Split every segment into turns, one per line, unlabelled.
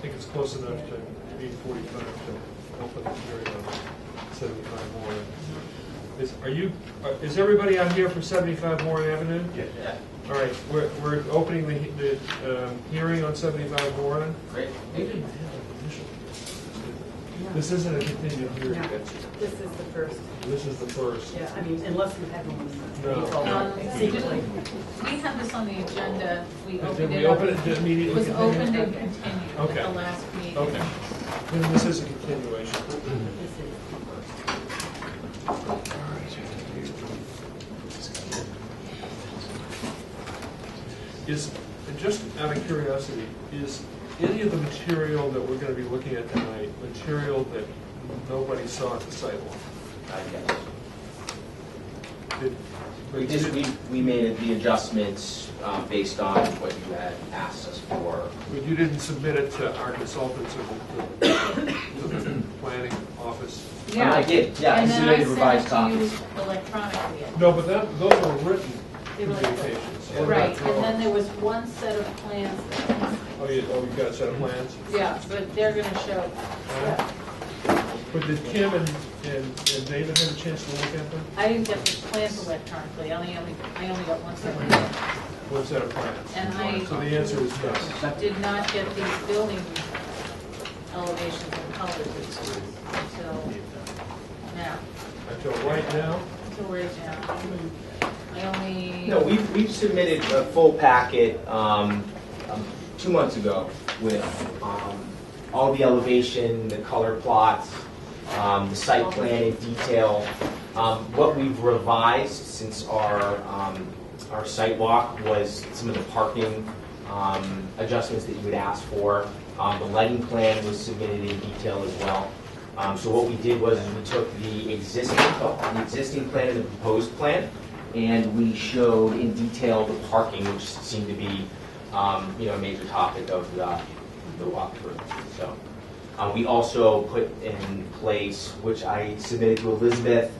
think it's close enough to eight forty-five to open the hearing on seventy-five Warren. Is, are you, are- is everybody out here for seventy-five Warren Avenue?
Yeah.
All right, we're, we're opening the, he- the, um, hearing on seventy-five Warren.
Great.
We didn't have an initial. This isn't a continued hearing,
No.
that's,
This is the first,
this is the first.
yeah, I mean, unless you have one
No.
that's secretly.
We had this on the agenda, we
Did
opened
we
it up.
open it? Did it immediately
It was
continue?
opened and continued at
Okay.
the last meeting.
Okay. Then this is a continuation.
This is-
Is, just out of curiosity, is any of the material that we're gonna be looking at tonight, material that nobody saw at the sidewalk?
I guess.
Did-
We just, we, we made the adjustments um, based on what you had asked us for.
But you didn't submit it to our consultants or the, to the planning office?
Yeah.
I did, yeah, I
And then
submitted revised
I
copies.
sent it to you electronically.
No, but that, those were written
They were-
communications. What about
Right, and then
drawings?
there was one set of plans that was
Oh, you, oh, you've got a set of plans?
Yeah, but they're gonna show, yeah.
But did Kim and, and and David have a chance to look at them?
I didn't get the plans electronically, I only, only- I only got one set. of plans.
One set of plans?
And I-
So the answer is yes.
Did not get these building elevations and colors until now,
Until right now,
until we're down. I only.
No, we've, we've submitted a full packet, um, um, two months ago with, um, all the elevation, the color plots, um, the site plan in detail. Um, what we've revised since our, um, our site walk was some of the parking, um, adjustments that you would ask for. Um, the lighting plan was submitted in detail as well. Um, so what we did was we took the existing, the existing plan and the proposed plan, and we showed in detail the parking, which seemed to be, um, you know, a major topic of the, the walkthrough. So, uh, we also put in place, which I submitted to Elizabeth,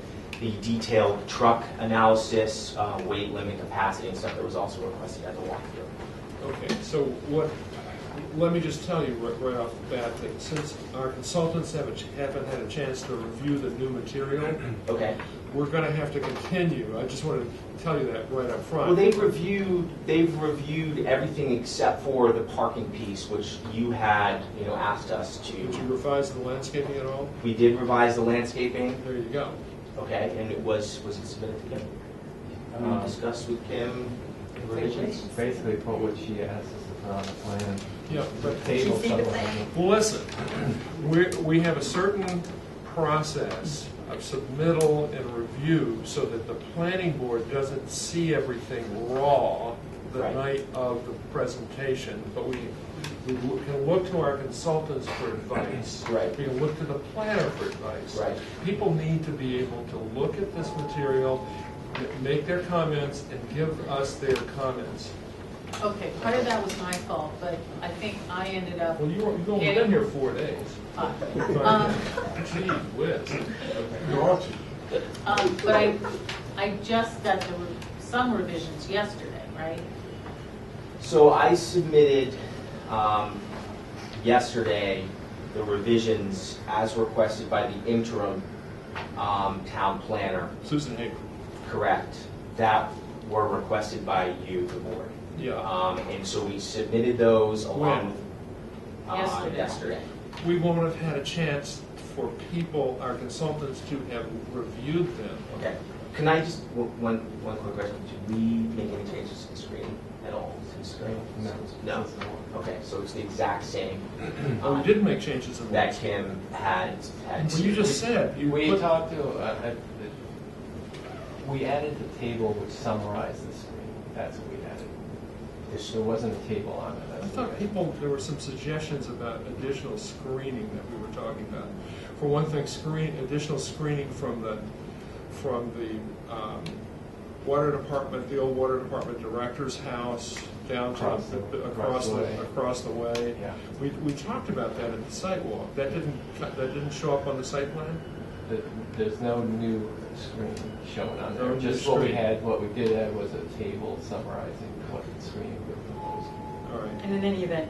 the detailed truck analysis, uh, weight limit, capacity, and stuff that was also requested at the walkthrough.
okay, so what, let me just tell you right, right off the bat that since our consultants haven't, haven't had a chance to review the new material,
Okay.
we're gonna have to continue. I just wanted to tell you that right up front.
Well, they've reviewed, they've reviewed everything except for the parking piece, which you had, you know, asked us
Did you
to.
revise the landscaping at all?
We did revise the landscaping,
There you go.
okay, and it was, was it submitted to Kim? Uh, Discussed with Kim revisions?
Basically put what she asked us to put on the plan.
Yeah, but
Table
see the
somewhere.
plan?
Well, listen, we, we have a certain process of submittal and review so that the planning board doesn't see everything raw the
Right.
night of the presentation, but we, we loo- can look to our consultants for advice.
Right.
We can look to the planner for advice.
Right.
People need to be able to look at this material, m- make their comments, and give us their comments.
Okay, part of that was my fault, but I think I ended up,
Well, you were- you've only been here four days.
uh,
Right. Gee whiz.
um, but I, I just got the, re- some revisions yesterday, right?
So I submitted um, yesterday the revisions as requested by the interim um, town planner,
Susan Hager.
correct, that were requested by you, the board.
Yeah.
Um, And so we submitted those
When?
along with. uh,
Yesterday.
Yesterday.
We won't have had a chance for people, our consultants, to have reviewed them.
Okay. Can I just, one, one- one quick question, did we make any changes to the screen at all? to the screen?
No.
No? Okay, so it's the exact same. um,
Oh, we did make changes in
That
that.
Kim had, had.
Well, you just said, you
We
put,
talked to, uh, uh, the- we added the table which summarized the screen. That's what we added. There- There wasn't a table on it.
I
that's what we
thought
added.
people, there were some suggestions about additional screening that we were talking about. For one thing, screen, additional screening from the, from the um, water department, the old water department director's house, down to,
Across the-
the- across the, across the way.
Yeah.
We, we talked about that at the site walk. That didn't, that didn't show up on the site plan?
The- There's no new screen shown on
No
there.
new
Just what we
screen.
had, what we did add was a table summarizing what the screen would propose.
All right.
And in any event,